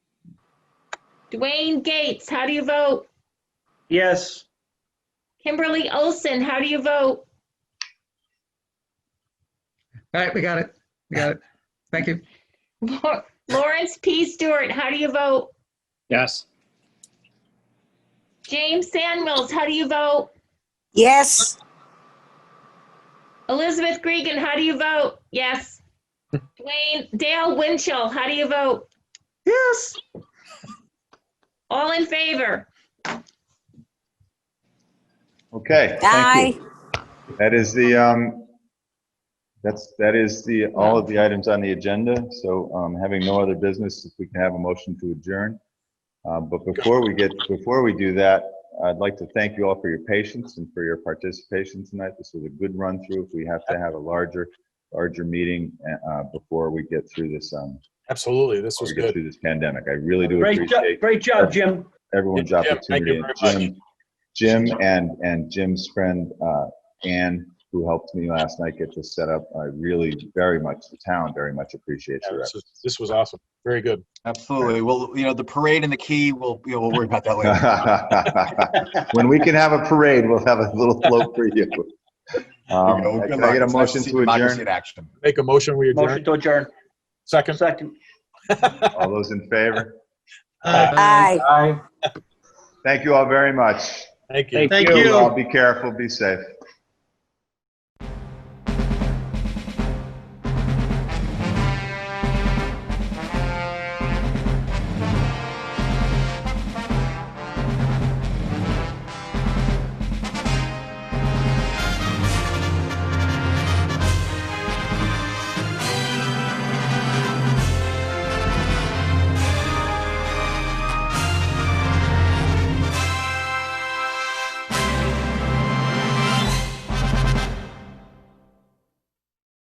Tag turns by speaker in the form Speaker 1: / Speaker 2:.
Speaker 1: Dwayne Gates, how do you vote?
Speaker 2: Yes.
Speaker 1: Kimberly Olson, how do you vote?
Speaker 3: All right, we got it. We got it. Thank you.
Speaker 1: Lau- Lawrence P. Stewart, how do you vote?
Speaker 2: Yes.
Speaker 1: James Samuels, how do you vote?
Speaker 4: Yes,
Speaker 1: Elizabeth Gregan, how do you vote? Yes. Dwayne, Dale Winchell, how do you vote?
Speaker 3: Yes.
Speaker 1: All in favor?
Speaker 5: Okay. thank
Speaker 4: aye.
Speaker 5: you. That is the, um, that's, that is the, all of the items on the agenda. So um, having no other business, if we can have a motion to adjourn. Uh, But before we get, before we do that, I'd like to thank you all for your patience and for your participation tonight. This was a good run through. If we have to have a larger, larger meeting uh, before we get through this, um,
Speaker 6: Absolutely. This was
Speaker 5: we get
Speaker 6: good.
Speaker 5: through this pandemic. I really do
Speaker 2: Great job,
Speaker 5: appreciate
Speaker 2: great job, Jim.
Speaker 5: everyone's
Speaker 6: Jim, thank
Speaker 5: opportunity.
Speaker 6: you
Speaker 5: and
Speaker 6: very much.
Speaker 5: Jim, Jim and, and Jim's friend, uh, Ann, who helped me last night get this set up. I really very much, the town very much appreciates
Speaker 6: Yeah,
Speaker 5: your
Speaker 6: this,
Speaker 5: efforts.
Speaker 6: was, this was awesome. Very good.
Speaker 7: Absolutely. Well, you know, the parade and the key, we'll, you know, we'll worry about that later.
Speaker 5: When we can have a parade, we'll have a little float for you. Um,
Speaker 7: You know, good
Speaker 5: Can
Speaker 7: luck.
Speaker 5: I get a
Speaker 7: It's nice
Speaker 5: motion
Speaker 7: see
Speaker 5: to
Speaker 7: democracy
Speaker 5: adjourn?
Speaker 7: in action.
Speaker 6: Make a motion. We adjourn.
Speaker 2: Motion to adjourn.
Speaker 6: Second.
Speaker 2: Second.
Speaker 5: All those in favor?
Speaker 4: Aye.
Speaker 2: Aye.
Speaker 5: Thank you all very much.
Speaker 6: Thank you.
Speaker 2: Thank
Speaker 3: Thank
Speaker 2: you.
Speaker 3: you.
Speaker 5: all Be careful, be safe.